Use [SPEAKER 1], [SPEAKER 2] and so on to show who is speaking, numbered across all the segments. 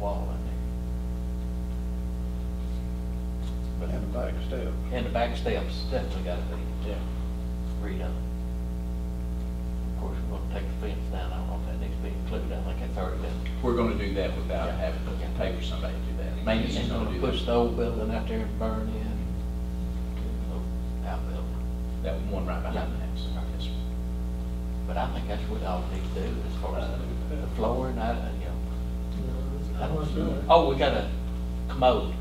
[SPEAKER 1] wall in there.
[SPEAKER 2] And the back step.
[SPEAKER 1] But- And the back steps definitely gotta be
[SPEAKER 2] Yeah.
[SPEAKER 1] redone. Of course, we're gonna take the fence down, I don't know if that needs to be included, I think it's already been.
[SPEAKER 3] We're gonna do that without
[SPEAKER 1] Yeah.
[SPEAKER 3] having to pay for somebody to do that.
[SPEAKER 1] Maybe
[SPEAKER 3] He's
[SPEAKER 1] it's
[SPEAKER 3] gonna
[SPEAKER 1] gonna
[SPEAKER 3] do
[SPEAKER 1] push
[SPEAKER 3] that.
[SPEAKER 1] the old building out there and burn in, outbuilding.
[SPEAKER 3] That one right behind the house. Yes, sir.
[SPEAKER 1] But I think that's what all we need to do as far as the- the flooring, I, you know. I don't know. Oh, we got a commode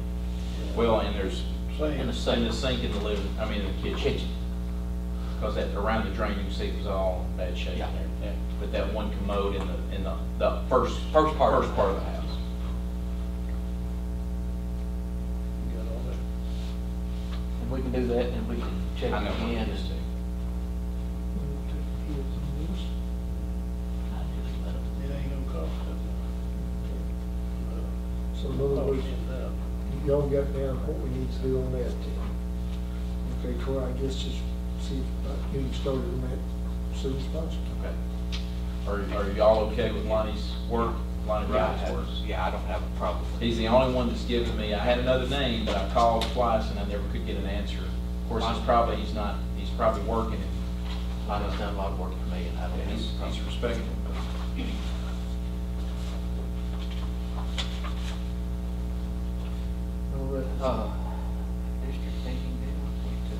[SPEAKER 3] Well, and there's,
[SPEAKER 1] and a
[SPEAKER 2] Same.
[SPEAKER 3] and
[SPEAKER 1] sink,
[SPEAKER 3] the sink in the living, I mean, in the kitchen.
[SPEAKER 1] kitchen.
[SPEAKER 3] Because that, around the drain, you can see it was all bad shape
[SPEAKER 1] Yeah.
[SPEAKER 3] there. Yeah. But that one commode in the, in the, the first.
[SPEAKER 1] First part of
[SPEAKER 3] First
[SPEAKER 1] the
[SPEAKER 3] part of the
[SPEAKER 1] house.
[SPEAKER 3] house.
[SPEAKER 2] Got all that.
[SPEAKER 1] And we can do that and we can check
[SPEAKER 3] I know.
[SPEAKER 1] again.
[SPEAKER 3] Yes, sir.
[SPEAKER 2] It ain't gonna cost us.
[SPEAKER 4] So in other words, y'all got down what we need to do on that then. Okay, Troy, I guess just see about getting started on that as soon as possible.
[SPEAKER 3] Okay. Are, are y'all okay with Lonnie's work, Lonnie
[SPEAKER 1] Yeah, I
[SPEAKER 3] Wright's
[SPEAKER 1] have-
[SPEAKER 3] work?
[SPEAKER 1] yeah, I don't have a problem with it.
[SPEAKER 3] He's the only one that's given me, I had another name, but I called twice and I never could get an answer. Of course, he's probably, he's not, he's probably working and
[SPEAKER 1] Lonnie's done a lot of work for me and I don't.
[SPEAKER 3] and he's, he's respected.
[SPEAKER 4] All right.
[SPEAKER 1] Uh, district thinking deal,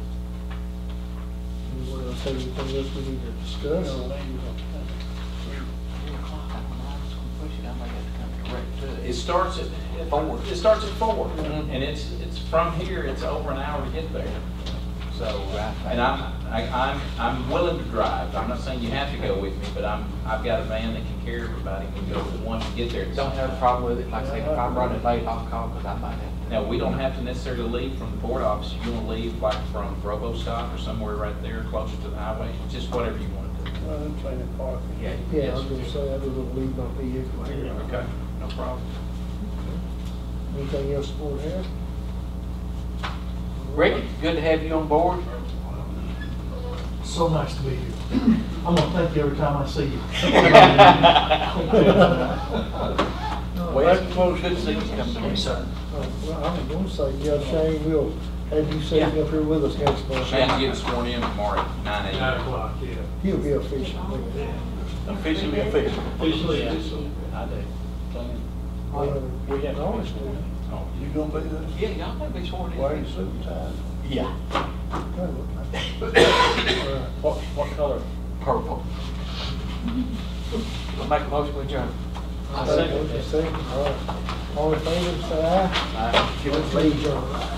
[SPEAKER 4] Anyone else have anything else we need to discuss?
[SPEAKER 1] we took four o'clock, I don't know, I'm just gonna push it, I may have to come direct to
[SPEAKER 3] It starts at four, it starts at four, and it's, it's from here, it's over an hour to get there. So, and I'm, I- I'm, I'm willing to drive, I'm not saying you have to go with me, but I'm, I've got a van that can carry everybody, we can go with one to get there. at the
[SPEAKER 1] Don't
[SPEAKER 3] same
[SPEAKER 1] have a
[SPEAKER 3] time.
[SPEAKER 1] problem with it, like I said, if I'm running late, I'll call, cause I might have.
[SPEAKER 3] Now, we don't have to necessarily leave from the board office, you wanna leave like from Robostock or somewhere right there closer to the highway, just whatever you wanna do.
[SPEAKER 2] Well, I'm playing park.
[SPEAKER 1] Yeah.
[SPEAKER 4] Yeah, I was gonna say, I don't leave my vehicle here.
[SPEAKER 3] Okay, no problem.
[SPEAKER 4] Anything else the board have?
[SPEAKER 1] Ricky, good to have you on board.
[SPEAKER 5] So nice to be here. I'm gonna thank you every time I see you.
[SPEAKER 1] Wes, good to see you come to me.
[SPEAKER 4] Uh, Well, I was gonna say, yeah, Shane, we'll have you sitting up here with us next month.
[SPEAKER 3] Shane's getting sworn in tomorrow at nine
[SPEAKER 5] Nine
[SPEAKER 3] AM.
[SPEAKER 5] o'clock, yeah.
[SPEAKER 4] He'll be official. man.
[SPEAKER 1] Officially official.
[SPEAKER 5] Officially,
[SPEAKER 2] I do.
[SPEAKER 4] Uh,
[SPEAKER 2] We got noise, you gonna be there?
[SPEAKER 1] Yeah, y'all gotta be sworn in.
[SPEAKER 2] Wearing suit and tie?
[SPEAKER 1] Yeah.
[SPEAKER 2] What, what color?
[SPEAKER 1] Purple. I'll make a motion with your.
[SPEAKER 4] Second, all right. All in favor, say aye.
[SPEAKER 1] Aye.
[SPEAKER 4] Let's leave, John.